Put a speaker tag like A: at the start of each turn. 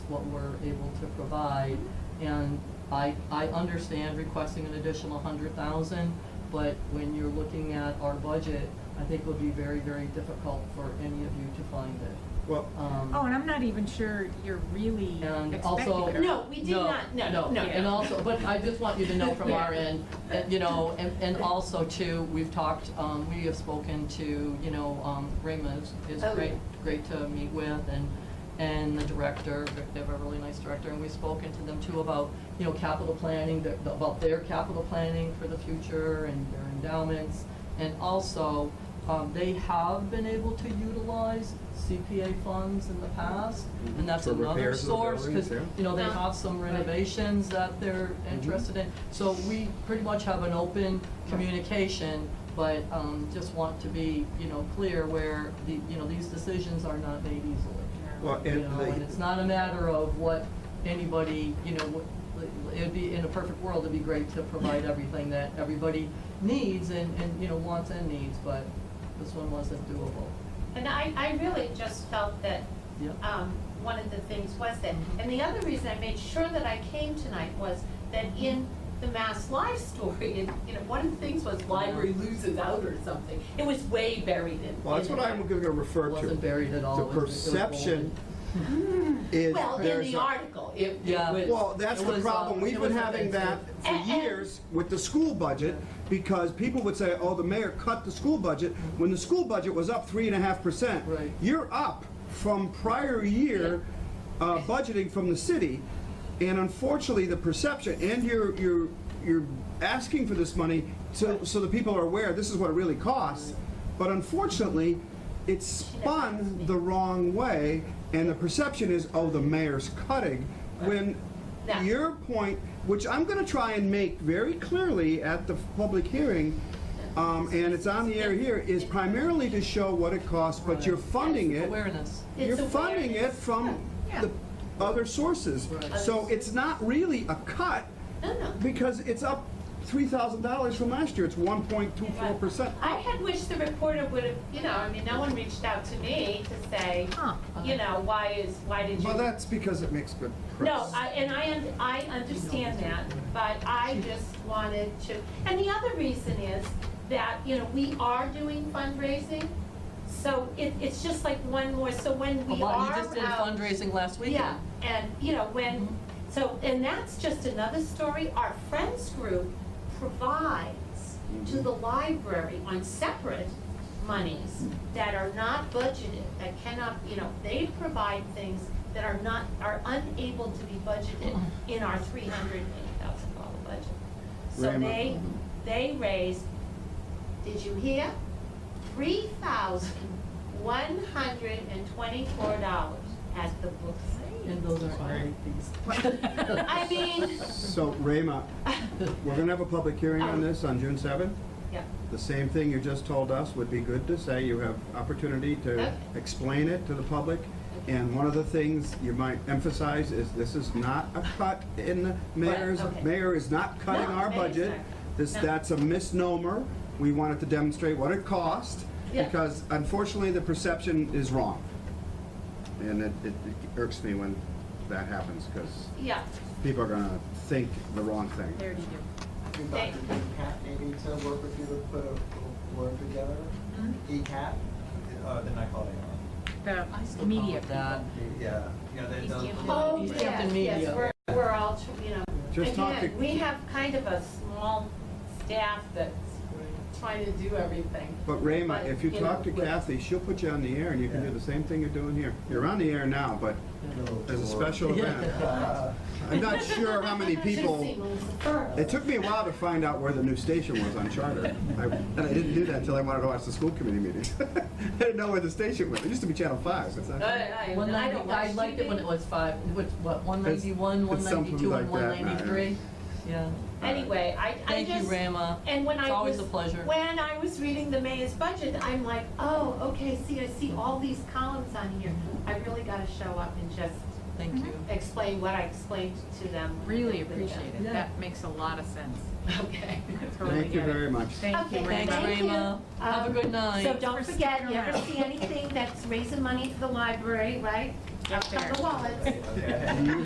A: what we're able to provide. And I, I understand requesting an additional hundred thousand, but when you're looking at our budget, I think it would be very, very difficult for any of you to find it.
B: Well,
A: Um,
C: Oh, and I'm not even sure you're really
A: And
C: expecting
A: also.
C: it.
D: No, we did not. No, no,
A: And
D: no.
A: also, but I just want you to know from our
D: Yeah.
A: end, that, you know, and, and also too, we've talked, um, we have spoken to, you know, um, Rima is, is
D: Oh,
A: great,
D: yeah.
A: great to meet with and, and the director, they have a really nice director, and we've spoken to them too about, you know, capital planning, the- the- about their capital planning for the future and their endowments. And also, um, they have been able to utilize CPA funds in the past, Mm-hmm. and that's
B: For
A: another
B: repairs of the
A: source,
B: buildings,
A: because,
B: yeah.
A: you know, they
D: Uh-huh.
A: have some renovations that they're
B: Mm-hmm.
A: interested in. So we pretty much have an open communication, but um, just want to be, you know, clear where, the you know, these decisions are not made easily.
B: Well,
A: You
B: Uh, and
A: know,
B: the-
A: and it's not a matter of what anybody, you know, what- it'd be, in a perfect world, it'd be great to provide everything that everybody needs and, and, you know, wants and needs, but this one wasn't doable.
D: And I, I really just felt that,
A: Yep.
D: um, one of the things was that, and the other reason I made sure that I came tonight was that in the Mass Live story, and, you know, one of the things was library loses out or something. It was way buried in.
B: well, that's
D: in
B: what
D: there.
B: I'm going to refer to.
A: Wasn't buried at all.
B: The
A: It was- it was
B: perception
A: bold.
B: is
D: Well, in
B: there's
D: the
B: a-
D: article, it, it
A: Yeah.
D: was.
B: Well, that's
A: It
B: the
A: was,
B: problem.
A: uh,
B: We've
A: it
B: been
A: was a
B: having that for
D: And- and-
B: years with the school budget because people would say, oh, the mayor cut the school budget when the school budget was up three and a half percent.
A: Right.
B: You're up from prior year uh, budgeting from the city. And unfortunately, the perception, and you're, you're, you're asking for this money so, so the people are aware this is what it really costs. But unfortunately, it's spun the wrong way and the perception is, oh, the mayor's cutting. When
D: No.
B: your point, which I'm going to try and make very clearly at the public hearing, um, and it's on the air here, is primarily to show what it costs, but you're funding it.
A: Awareness.
D: It's
B: You're funding it
D: awareness.
B: from
C: Yeah.
B: the other sources.
A: Right.
B: So it's not really a cut
D: No, no.
B: because it's up $3,000 from last year. It's 1.24%.
D: I had wished the reporter would have, you know, I mean, no one reached out to me to say,
C: Huh.
D: you know, why is, why did you?
B: Well, that's because it makes good
D: No,
B: press.
D: I- and I, un- I understand that, but I just wanted to, and the other reason is that, you know, we are doing fundraising, so it, it's just like one more, so when
A: A
D: we
A: lot-
D: are
A: You just did
D: out-
A: fundraising last weekend. Mm-hmm.
D: Yeah, and, you know, when, so, and that's just another story, our Friends Group provides to
A: Mm-hmm.
D: the library on separate monies that are not budgeted, that cannot, you know, they provide things that are not, are unable to be budgeted
A: Mm-hmm.
D: in our three hundred and eight thousand dollar budget. So
B: Rayma.
D: they, they raise, did you hear? Three thousand one hundred and twenty-four dollars at the book sale.
A: And those are irony fees.
D: I mean,
B: So, Rayma, we're going to have a public hearing
D: Oh.
B: on this on June 7th.
D: yeah,
B: The same thing you just told us would be good to say. You have opportunity to
D: Okay.
B: explain it to the public. And one of the things you might emphasize is this is not a cut in the mayor's,
D: okay.
B: mayor is not cutting
D: No,
B: our
D: mayor's
B: budget.
D: not.
B: This,
D: No.
B: that's a misnomer. We wanted to demonstrate what it cost
D: Yeah.
B: because unfortunately the perception is wrong. And it, it irks me when that happens because
D: yeah,
B: people are gonna think the wrong thing.
C: There it is.
E: And
D: Thank-
E: Dr. DeCat, maybe to work with you to put a little blurb together. DCAT,
F: Uh, then I call it.
C: The
A: I still call
C: media
A: it that.
F: Yeah, yeah, they
C: Easy
F: don't.
C: to
D: oh,
A: East
D: yes,
A: Hampton
D: yes,
A: Media.
D: we're, we're all, tr- you know.
B: Just talk to-
D: Again, we have kind of a small staff that's trying to do everything.
B: But Rayma, if you
D: know,
B: talk to
D: with-
B: Kathy, she'll put you on the air and you can do the same thing you're doing here. You're on the air now, but as a special event.
F: Uh,
B: I'm not sure how many people, it took me a while to find out where the new station was on Charter. I- And I didn't do that until I wanted to watch the school committee meetings. I didn't know where the station was. It used to be Channel 5. It's
D: I,
B: not-
D: I,
A: One
D: I
A: ninety,
D: don't watch
A: I liked it when it
D: TV.
A: was five, which, what, one
B: It's-
A: ninety-one, one
B: it's something
A: ninety-two, and one
B: like that,
A: ninety-three? Yeah.
D: Anyway, I, I
A: Thank you,
D: just.
A: Rama.
D: And when I
A: It's always
D: was-
A: a pleasure.
D: When I was reading the mayor's budget, I'm like, oh, okay, see, I see all these columns on here. I really gotta show up and just
A: Thank you.
D: explain what I explained to them.
C: Really appreciate it.
A: Yeah.
C: That makes a lot of sense.
D: Okay.
C: Totally
B: Thank you
C: get it.
B: very much.
C: Thank you,
D: Okay,
C: Rayma.
A: Thanks,
D: Thank you.
A: Rayma. Have a
D: Um,
A: good night.
D: So don't
C: For
D: forget,
C: sticking
D: you ever
C: around.
D: see anything that's raising money for the library, right?
G: Get
D: Out of the
G: there.
D: wallet.
E: Okay.